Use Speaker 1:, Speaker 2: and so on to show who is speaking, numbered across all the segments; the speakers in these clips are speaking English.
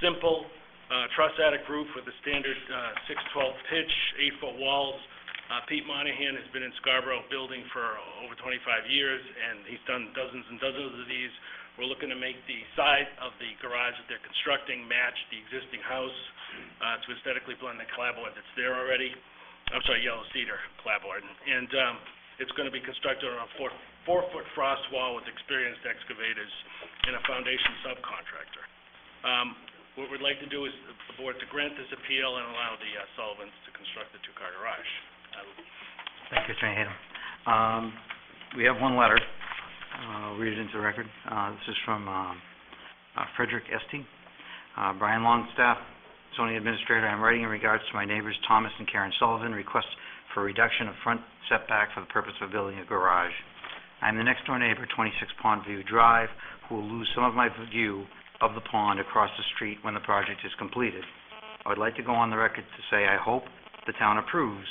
Speaker 1: simple, uh, truss attic roof with a standard, uh, six-twelve pitch, eight-foot walls. Uh, Pete Monahan has been in Scarborough building for over twenty-five years, and he's done dozens and dozens of these. We're looking to make the side of the garage that they're constructing match the existing house, uh, to aesthetically blend the clapboard that's there already. I'm sorry, yellow cedar clapboard. And, um, it's gonna be constructed on a four, four-foot frost wall with experienced excavators and a foundation subcontractor. Um, what we'd like to do is the board to grant this appeal and allow the uh, Sullivans to construct the two-car garage. I would
Speaker 2: Thank you, Mr. Hayden. Um, we have one letter, uh, I'll read it into the record. Uh, this is from, um, uh, Frederick Estee. Uh, Brian Longstaff, zoning administrator, I'm writing in regards to my neighbors Thomas and Karen Sullivan, request for reduction of front setback for the purpose of building a garage. I'm the next door neighbor, twenty-six Pondview Drive, who will lose some of my view of the pond across the street when the project is completed. I would like to go on the record to say I hope the town approves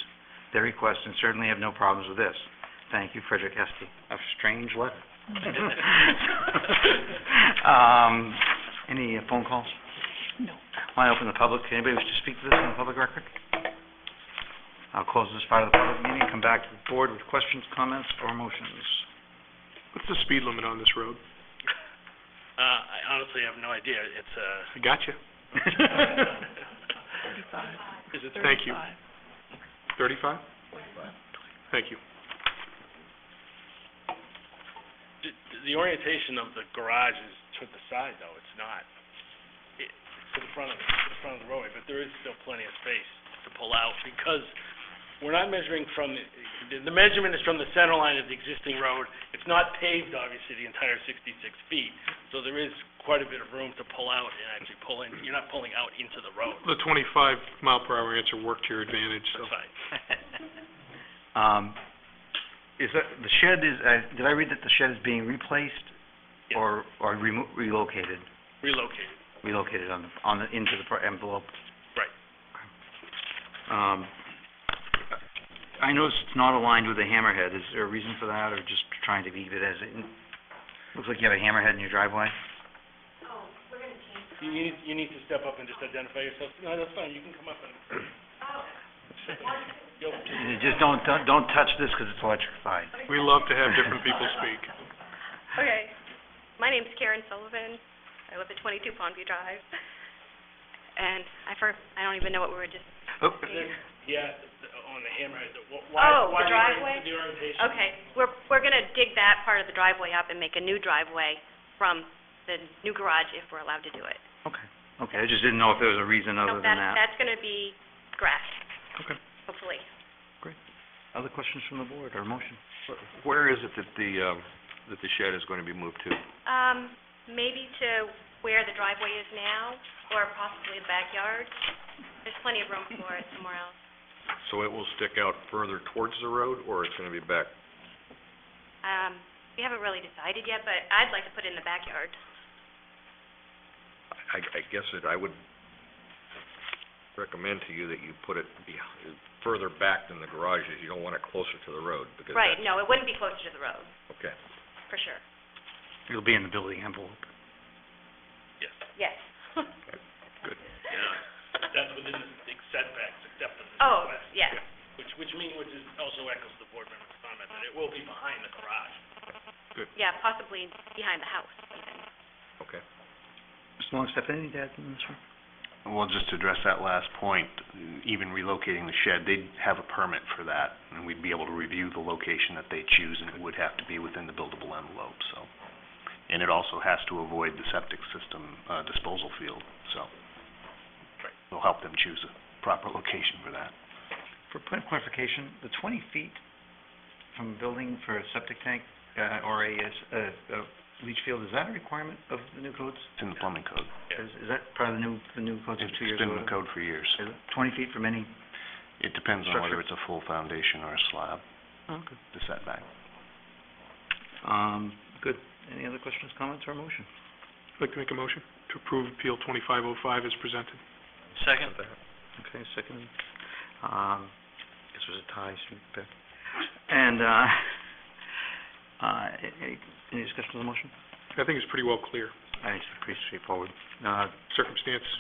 Speaker 2: their request and certainly have no problems with this. Thank you, Frederick Estee. A strange letter. Um, any uh, phone calls?
Speaker 3: No.
Speaker 2: Want to open the public, anybody wish to speak to this in the public record? I'll close this part of the public meeting, come back to the board with questions, comments, or motions.
Speaker 4: What's the speed limit on this road?
Speaker 1: Uh, I honestly have no idea. It's, uh,
Speaker 4: I gotcha.
Speaker 1: is it,
Speaker 4: Thank you. Thirty-five? Thank you.
Speaker 1: d- the orientation of the garage is to the side, though. It's not, it- it's to the front of, to the front of the roadway, but there is still plenty of space to pull out because we're not measuring from, the, the measurement is from the center line of the existing road. It's not paved, obviously, the entire sixty-six feet, so there is quite a bit of room to pull out and actually pull in. You're not pulling out into the road.
Speaker 4: The twenty-five mile per hour answer worked to your advantage, so.
Speaker 1: That's fine.
Speaker 2: Um, is that, the shed is, uh, did I read that the shed is being replaced
Speaker 1: Yes.
Speaker 2: or, or remo- relocated?
Speaker 1: Relocated.
Speaker 2: relocated on the, on the, into the pro- envelope.
Speaker 1: Right.
Speaker 2: Um, I noticed it's not aligned with the hammerhead. Is there a reason for that, or just trying to leave it as it? Looks like you have a hammerhead in your driveway.
Speaker 1: You need, you need to step up and just identify yourself. No, that's fine, you can come up and... You'll-
Speaker 2: You Just don't, don't, don't touch this, 'cause it's electrified.
Speaker 4: We love to have different people speak.
Speaker 3: Okay, my name's Karen Sullivan, I live at twenty-two Pondview Drive, and I first, I don't even know what we were just,
Speaker 2: Oh,
Speaker 1: Yeah, the- on the hammerhead, the, wh- why,
Speaker 3: Oh,
Speaker 1: why
Speaker 3: the
Speaker 1: the
Speaker 3: driveway?
Speaker 1: orient- the orientation?
Speaker 3: okay, we're, we're gonna dig that part of the driveway up and make a new driveway from the new garage if we're allowed to do it.
Speaker 2: Oh, okay, okay, I just didn't know if there was a reason
Speaker 3: No,
Speaker 2: other than
Speaker 3: that's-
Speaker 2: that.
Speaker 3: That's gonna be grass,
Speaker 4: Okay.
Speaker 3: hopefully.
Speaker 2: Other questions from the board, or motion?
Speaker 5: Where is it that the, um, that the shed is going to be moved to?
Speaker 3: Um, maybe to where the driveway is now, or possibly the backyard, there's plenty of room for it somewhere else.
Speaker 5: So it will stick out further towards the road, or it's going to be back?
Speaker 3: Um, we haven't really decided yet, but I'd like to put it in the backyard.
Speaker 5: I, I guess that I would recommend to you that you put it beh further back than the garage is. You don't want it closer to the road, because
Speaker 3: Right,
Speaker 5: that's...
Speaker 3: no, it wouldn't be closer to the road,
Speaker 5: Okay.
Speaker 3: for sure.
Speaker 2: It'll be in the building envelope.
Speaker 1: Yes,
Speaker 3: Yes.
Speaker 1: yeah, that's within the big setbacks except for the
Speaker 3: Oh,
Speaker 1: west,
Speaker 3: yes,
Speaker 1: which, which mean, which is also echoes the board member's comment, that it will be behind the garage.
Speaker 3: yeah, possibly behind the house even.
Speaker 5: Okay.
Speaker 2: Mr. Longstaff, anything to add to this one?
Speaker 6: Well, just to address that last point, even relocating the shed, they'd have a permit for that, and we'd be able to review the location that they choose, and it would have to be within the buildable envelope, so. And it also has to avoid the septic system uh, disposal field, so. We'll help them choose a proper location for that.
Speaker 2: For point of clarification, the twenty feet from building for a septic tank, uh, or a, uh, a leach field, is that a requirement of the new codes?
Speaker 6: It's in the plumbing code.
Speaker 2: Is, is that part of the new, the new codes of two years
Speaker 6: It's been
Speaker 2: ago?
Speaker 6: in the code for years.
Speaker 2: Is it Twenty feet from any?
Speaker 6: It depends on whether it's a full foundation or a slab,
Speaker 2: Okay.
Speaker 6: the setback.
Speaker 2: Um, good. Any other questions, comments, or motion?
Speaker 4: I'd like to make a motion to approve Appeal twenty-five oh five as presented.
Speaker 1: Second.
Speaker 2: Okay, second. Um, this was a tie, so Beck. And, uh, uh, any, any discussion on the motion?
Speaker 4: I think it's pretty well clear.
Speaker 2: I think it's pretty straightforward. Uh,
Speaker 4: Circumstance